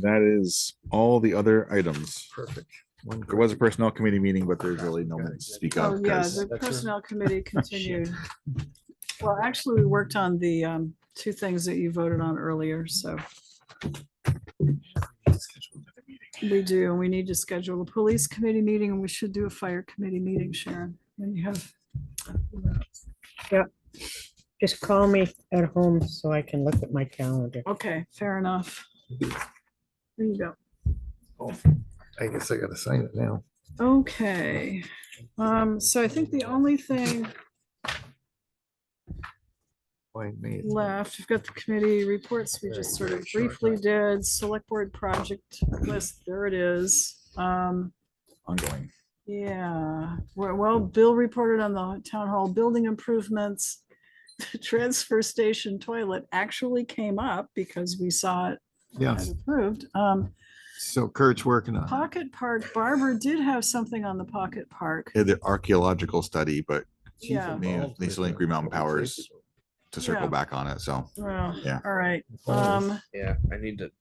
that is all the other items. Perfect. One There was a personnel committee meeting, but there's really no one to speak Oh, of. yeah, 'cause- the that's Oh, a- personnel committee continued. Well, actually, we worked on the um, two things that you voted on earlier, so we do, and we need to schedule a police committee meeting, and we should do a fire committee meeting, Sharon. And you have, Just call me at home so I can look at my calendar. okay, fair enough. There you go. I guess I gotta sign it now. Okay, um, so I think the only thing Why me? It's- left. We've got the committee reports we just sort of briefly did, select board project list, there it is. Um, Ongoing. yeah, well, well, Bill reported on the town hall building improvements. The transfer station toilet actually came up because we saw it as Yes, approved. Um, so Kurt's working on it. Pocket Park, Barbara did have something on the Pocket Park. Yeah, the archaeological study, but Yeah. may- they still think Green Mountain Powers to circle Yeah. back on it, so. Well, Yeah. all right, um, Yeah, I need to.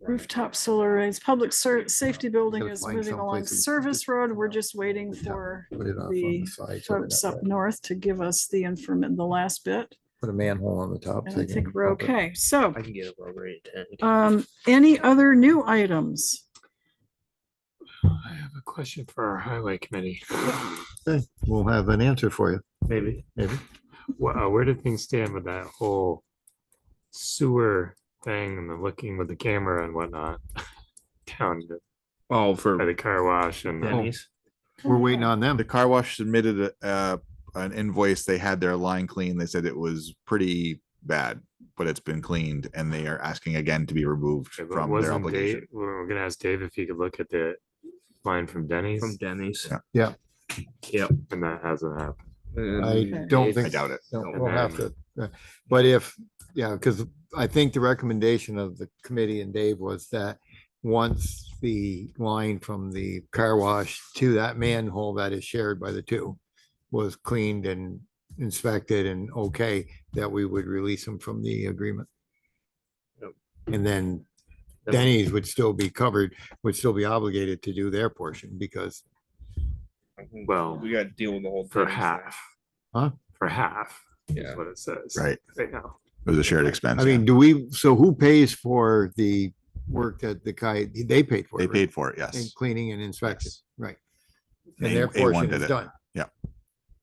Rooftop solar arrays, public ser- safety building Gotta is find moving along someplace we can Service just- Road. We're just waiting for Put it off on the the side. so we're folks not- up north to give us the information, the last bit. Put a manhole on the top. so And I you can think we're pump it. okay. So, I can get over rate ten. um, any other new items? I have a question for our highway committee. Okay, We'll have an answer for you, Maybe, maybe. Wha- uh, where did things stand with that whole sewer thing and the looking with the camera and whatnot? Down Oh, by for the car wash and Denny's. We're waiting on them. The car wash submitted a, uh, an invoice. They had their line cleaned. They said it was pretty bad, but it's been cleaned and they are asking again to be removed Okay, but from their wasn't Dave, obligation. we're we're gonna ask Dave if he could look at the line from Denny's From Denny's. Yeah. Yeah. Yep. and that hasn't happened. I And don't Dave- think. I doubt it. No, And We'll have to, uh, but if, yeah, because I think the recommendation of the committee and Dave was that once the line from the car wash to that manhole that is shared by the two was cleaned and inspected and okay, that we would release them from the agreement. Yep. And then Yep. Denny's would still be covered, would still be obligated to do their portion because, Well, We gotta deal with the whole. for Denny's half. Huh? For half. thing. Is Yeah. what it says. Right. Right now. It was a shared expense. I mean, do we, so who pays for the work that the guy, they paid for? it, They right? paid for it, And yes. cleaning and inspection, Yes. right. A- And their A1 portion did is it. done.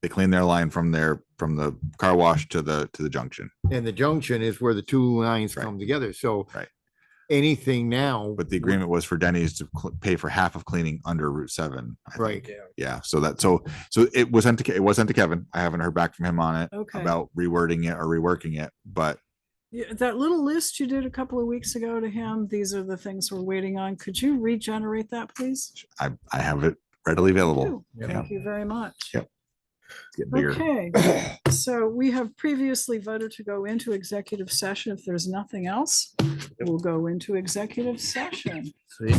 They cleaned their line from their, from the car wash to the, to the junction. And the junction is where the two lines Right. come together, so. Right. Anything now. But the would- agreement was for Denny's to cl- pay for half of cleaning under Route seven. I think. Right, Yeah, so that, so, so it was sent to, Ke- it was sent to Kevin. I haven't heard back from him on it Okay. about rewording it or reworking it, but Yeah, That little list you did a couple of weeks ago to him, these are the things we're waiting on. Could you regenerate that, please? I, I have it readily available. Ooh, Thank you very much. Yep. It's getting bigger. Okay, so we have previously voted to go into executive session. If there's nothing else, we'll go into executive session. See?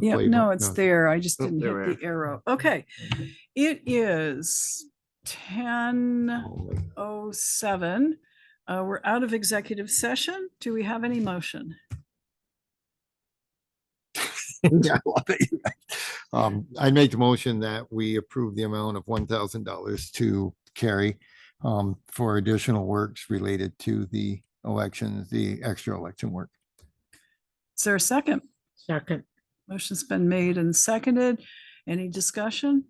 Yeah, playbook, no, it's no. there. I just Oh, didn't there we hit the arrow. Okay. It is ten oh seven. Uh, we're out of executive session. Do we have any motion? I love it. Um, I make the motion that we approve the amount of one thousand dollars to carry. Um, for additional works related to the elections, the extra election work. Is there a second? Second, Motion's been made and seconded. Any discussion?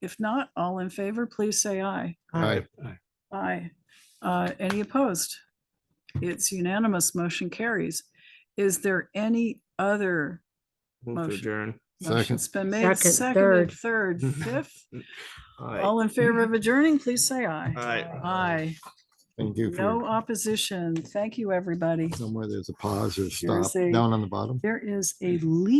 If not, all in favor, please say aye. Right, Aye. Uh, Any opposed? It's unanimous. Motion carries. Is there any other Move to Motion. adjourn. motion's been made? Second, Seconded, third, fifth. All in favor of adjourning, please say aye. Aye. Aye. thank you. for your- No opposition. Thank you, everybody. Somewhere there's a pause or Here's stop a- down on the bottom. There is a leak.